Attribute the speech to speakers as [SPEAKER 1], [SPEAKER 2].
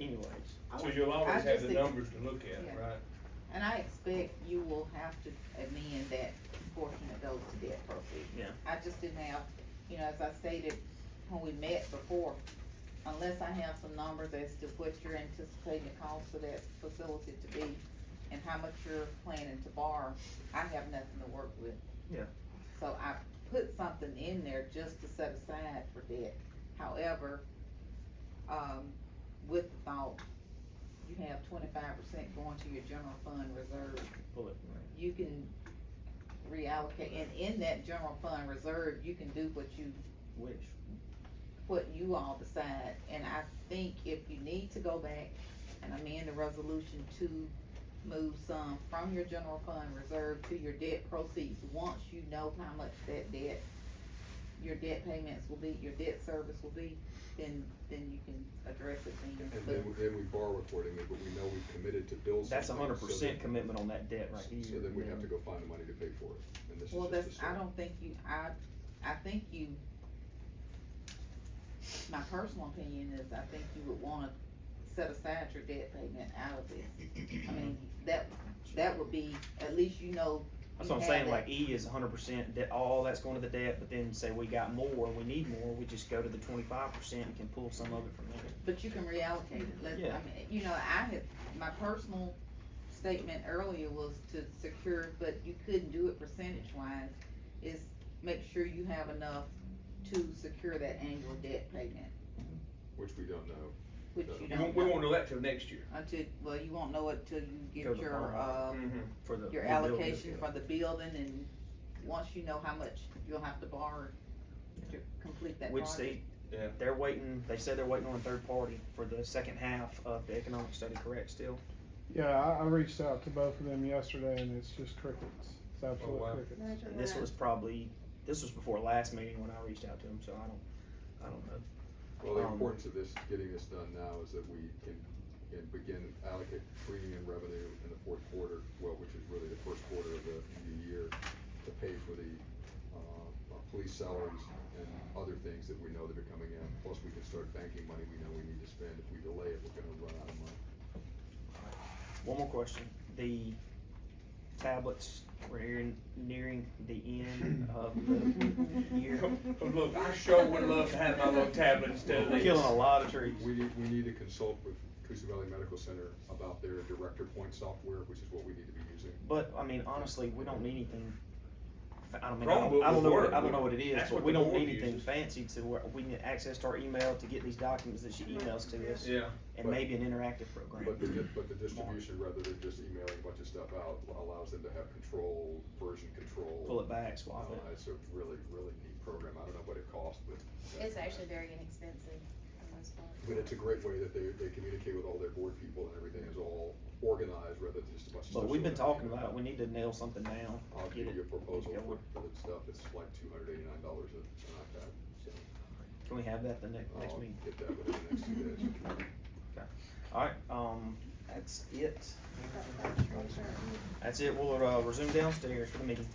[SPEAKER 1] anyways.
[SPEAKER 2] So you'll
[SPEAKER 3] I
[SPEAKER 2] always have
[SPEAKER 3] just
[SPEAKER 2] the
[SPEAKER 3] think-
[SPEAKER 2] numbers to look at,
[SPEAKER 3] Yeah.
[SPEAKER 2] right?
[SPEAKER 3] And I expect you will have to amend that portion that goes to debt proceeds.
[SPEAKER 1] Yeah.
[SPEAKER 3] I just didn't have, you know, as I stated when we met before, unless I have some numbers as to what you're anticipating the cost of that facility to be and how much you're planning to borrow, I have nothing to work with.
[SPEAKER 1] Yeah.
[SPEAKER 3] So I put something in there just to set aside for debt. However, um, with the thought, you have twenty-five percent going to your general fund reserve
[SPEAKER 1] Bullet.
[SPEAKER 3] you can reallocate, and in that general fund reserve, you can do what you,
[SPEAKER 1] Wish.
[SPEAKER 3] what you all decide. And I think if you need to go back and amend the resolution to move some from your general fund reserve to your debt proceeds, once you know how much that debt, your debt payments will be, your debt service will be, then, then you can address it then.
[SPEAKER 4] And
[SPEAKER 3] But
[SPEAKER 4] then, then we borrow accordingly, but we know we've committed to build something.
[SPEAKER 1] That's a hundred
[SPEAKER 4] so
[SPEAKER 1] percent
[SPEAKER 4] that-
[SPEAKER 1] commitment on that debt right here.
[SPEAKER 4] So then we have to go find the money to pay for it, and this is
[SPEAKER 3] Well,
[SPEAKER 4] just a
[SPEAKER 3] that's, I
[SPEAKER 4] start.
[SPEAKER 3] don't think you, I, I think you, my personal opinion is I think you would wanna set aside your debt payment out of this. I mean, that, that would be, at least you know.
[SPEAKER 1] That's
[SPEAKER 3] you
[SPEAKER 1] what I'm
[SPEAKER 3] have
[SPEAKER 1] saying,
[SPEAKER 3] that.
[SPEAKER 1] like E is hundred percent, that all that's going to the debt, but then say we got more, we need more, we just go to the twenty-five percent and can pull some of it from there.
[SPEAKER 3] But you can reallocate it, let, I
[SPEAKER 1] Yeah.
[SPEAKER 3] mean, you know, I had, my personal statement earlier was to secure, but you couldn't do it percentage wise, is make sure you have enough to secure that annual debt payment,
[SPEAKER 4] Which we don't know.
[SPEAKER 3] which
[SPEAKER 4] Yeah.
[SPEAKER 3] you
[SPEAKER 2] We
[SPEAKER 3] don't
[SPEAKER 2] won't,
[SPEAKER 3] know.
[SPEAKER 2] we won't know that till next year.
[SPEAKER 3] Until, well, you won't know it till you
[SPEAKER 1] Go
[SPEAKER 3] get
[SPEAKER 1] to
[SPEAKER 3] your, uh,
[SPEAKER 2] Mm.
[SPEAKER 1] borrow.
[SPEAKER 2] Um,
[SPEAKER 1] For the.
[SPEAKER 3] your
[SPEAKER 1] the building.
[SPEAKER 3] allocation for the building and once you know how much you'll have to borrow to complete that
[SPEAKER 1] Which
[SPEAKER 3] project.
[SPEAKER 1] they,
[SPEAKER 2] Yeah.
[SPEAKER 1] they're waiting, they said they're waiting on a third party for the second half of the economic study, correct, still?
[SPEAKER 5] Yeah, I, I reached out to both of them yesterday, and it's just crickets. It's absolute
[SPEAKER 2] Oh, wow.
[SPEAKER 5] crickets.
[SPEAKER 1] And this was probably, this was before last meeting when I reached out to him, so I don't, I don't know.
[SPEAKER 4] Well, the
[SPEAKER 1] Um,
[SPEAKER 4] importance of this, getting this done now is that we can, can begin allocate premium revenue in the fourth quarter, well, which is really the first quarter of the, the year, to pay for the, uh, our police salaries and other things that we know that are coming in. Plus, we can start banking money we know we need to spend. If we delay it, we're gonna run out of money.
[SPEAKER 1] One more question. The tablets, we're nearing, nearing the end of the year.
[SPEAKER 2] Oh, Look, I sure would love to have my little tablet instead of
[SPEAKER 1] We're
[SPEAKER 2] this.
[SPEAKER 1] Killing a lot of trees.
[SPEAKER 4] We need, we need to consult with Coosa Valley Medical Center about their director point software, which is what we need to be using.
[SPEAKER 1] But, I mean, honestly, we don't need anything, fa- I don't mean, I don't, I
[SPEAKER 2] Chromebook
[SPEAKER 1] don't
[SPEAKER 2] would
[SPEAKER 1] know, what-
[SPEAKER 2] work.
[SPEAKER 1] I don't know what it is,
[SPEAKER 2] That's
[SPEAKER 1] but
[SPEAKER 2] what
[SPEAKER 1] we
[SPEAKER 2] the
[SPEAKER 1] don't
[SPEAKER 2] board
[SPEAKER 1] need anything
[SPEAKER 2] uses.
[SPEAKER 1] fancy to where, we can access to our email to get these documents that she emails to us.
[SPEAKER 2] Yeah.
[SPEAKER 1] And maybe an interactive program.
[SPEAKER 4] But the, di- but the distribution, rather than just emailing a bunch of stuff out, allows them to have control, version control.
[SPEAKER 1] Pull it back,
[SPEAKER 4] Uh,
[SPEAKER 1] swap it.
[SPEAKER 4] It's a really, really neat program. I don't know what it costs, but.
[SPEAKER 6] It's actually very inexpensive for the most part.
[SPEAKER 4] But it's a great way that they, they communicate with all their board people and everything is all organized rather than just a bunch of stuff.
[SPEAKER 1] But we've been
[SPEAKER 4] sort of-
[SPEAKER 1] talking about it. We need to nail something down.
[SPEAKER 4] I'll
[SPEAKER 1] Get it.
[SPEAKER 4] give you a proposal
[SPEAKER 1] get
[SPEAKER 4] for,
[SPEAKER 1] going.
[SPEAKER 4] for that stuff. It's like two hundred eighty-nine dollars an iPad, so
[SPEAKER 1] Can we have that the next, next
[SPEAKER 4] I'll
[SPEAKER 1] meeting?
[SPEAKER 4] get that within the next two days.
[SPEAKER 1] Alright, um, that's it. That's it. We'll, uh, resume downstairs for the meeting.